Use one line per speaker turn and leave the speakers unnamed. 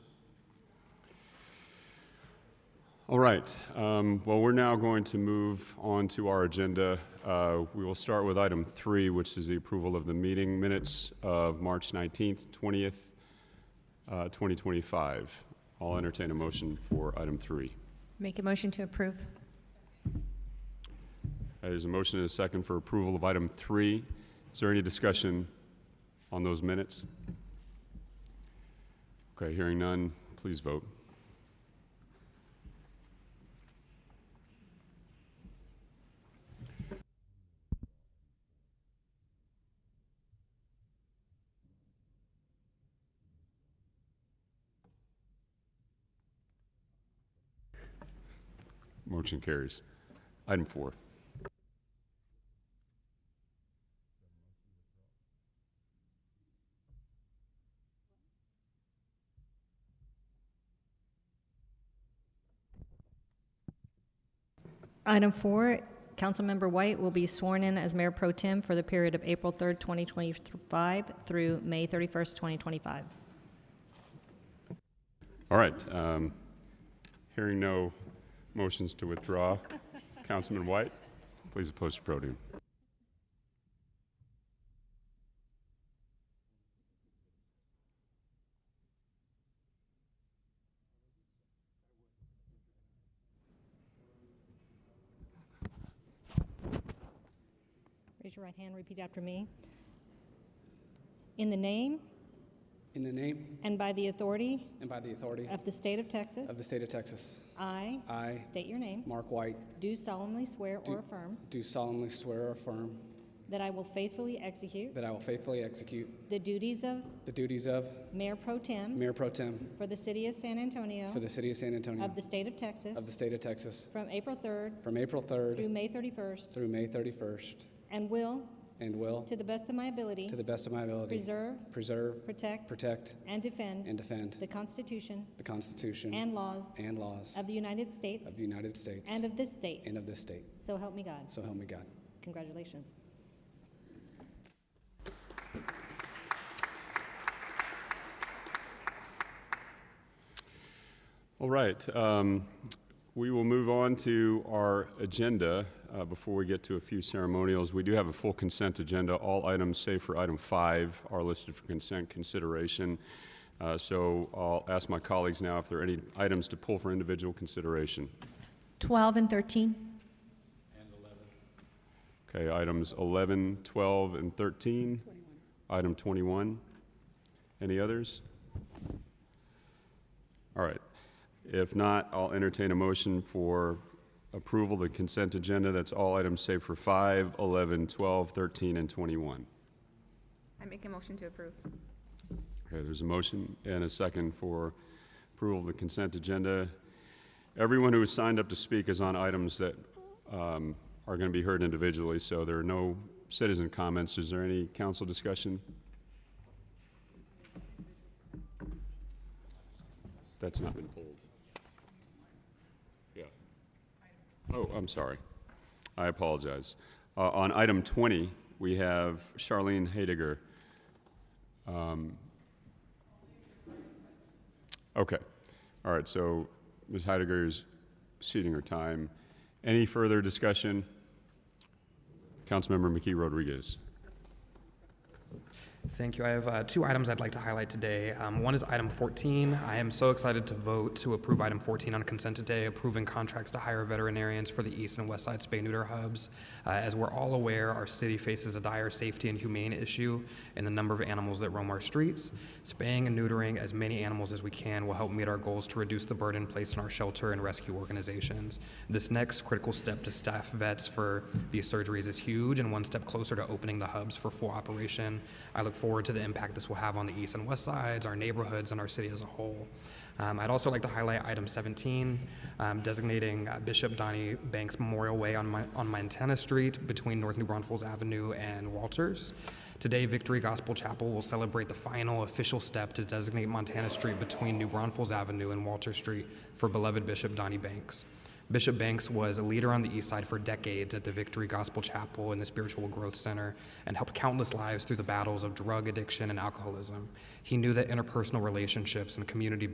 All right, um, well, we're now going to move on to our agenda. Uh, We will start with item three, which is the approval of the meeting minutes of March 19th, 20th, uh, 2025. I'll entertain a motion for item three.
Make a motion to approve.
Uh, There's a motion and a second for approval of item three. Is there any discussion on those minutes? Okay, hearing none, please vote. Motion carries. Item four.
Item four, Councilmember White will be sworn in as Mayor Pro Tem for the period of April 3rd, 2025 through May 31st, 2025.
All right. um, Hearing no motions to withdraw, Councilman White, please oppose the podium.
Raise your right hand, repeat after me. In the name
In the name
and by the authority
and by the authority
of the state of
of the
Texas,
state of Texas,
I
I,
state your name,
Mark White,
do solemnly swear
Do-
or affirm
do solemnly swear or affirm
that I will faithfully execute
that I will faithfully execute
the duties of
the duties of
Mayor Pro Tem
Mayor Pro Tem
for the city of San Antonio
for the city of San Antonio
of the state of
of the
Texas
state of Texas
from April 3rd
from April
through
3rd
May 31st
through May 31st,
And will,
and will,
to the best of my ability,
to the best of my ability,
preserve,
preserve,
protect,
protect,
and defend
and defend
the Constitution
the Constitution
and laws
and laws
of the United
of
States
the United States
and of this state.
and of this state.
So help me God.
So help me God.
Congratulations.
All right. um, We will move on to our agenda. uh, Before we get to a few ceremonials, we do have a full consent agenda. All items, save for item five, are listed for consent consideration. Uh, So I'll ask my colleagues now if there are any items to pull for individual consideration.
12 and 13.
Okay, items 11, 12, and 13. Item 21. Any others? All right. If not, I'll entertain a motion for approval of the consent agenda. That's all items save for 5, 11, 12, 13, and 21.
I make a motion to approve.
Okay, there's a motion and a second for approval of the consent agenda. Everyone who has signed up to speak is on items that um, are going to be heard individually, so there are no citizen comments. Is there any council discussion? That's not been pulled. Yeah. Oh, I'm sorry. I apologize. Uh, On item 20, we have Charlene Hediger. Okay. All right, so Ms. Heidegger is ceding her time. Any further discussion? Councilmember McKee Rodriguez.
Thank you. I have uh, two items I'd like to highlight today. Um, one is item 14. I am so excited to vote to approve item 14 on consent today, approving contracts to hire veterinarians for the East and West Side spay neuter hubs. Uh, as we're all aware, our city faces a dire safety and humane issue in the number of animals that roam our streets. Spaying and neutering as many animals as we can will help meet our goals to reduce the burden placed on our shelter and rescue organizations. This next critical step to staff vets for these surgeries is huge and one step closer to opening the hubs for full operation. I look forward to the impact this will have on the east and west sides, our neighborhoods, and our city as a whole. Um, I'd also like to highlight item 17, um, designating uh, Bishop Donnie Banks Memorial Way on, my, on Montana Street between North New Braunfels Avenue and Walters. Today, Victory Gospel Chapel will celebrate the final official step to designate Montana Street between New Braunfels Avenue and Walter Street for beloved Bishop Donnie Banks. Bishop Banks was a leader on the East Side for decades at the Victory Gospel Chapel and the Spiritual Growth Center and helped countless lives through the battles of drug addiction and alcoholism. He knew that interpersonal relationships and community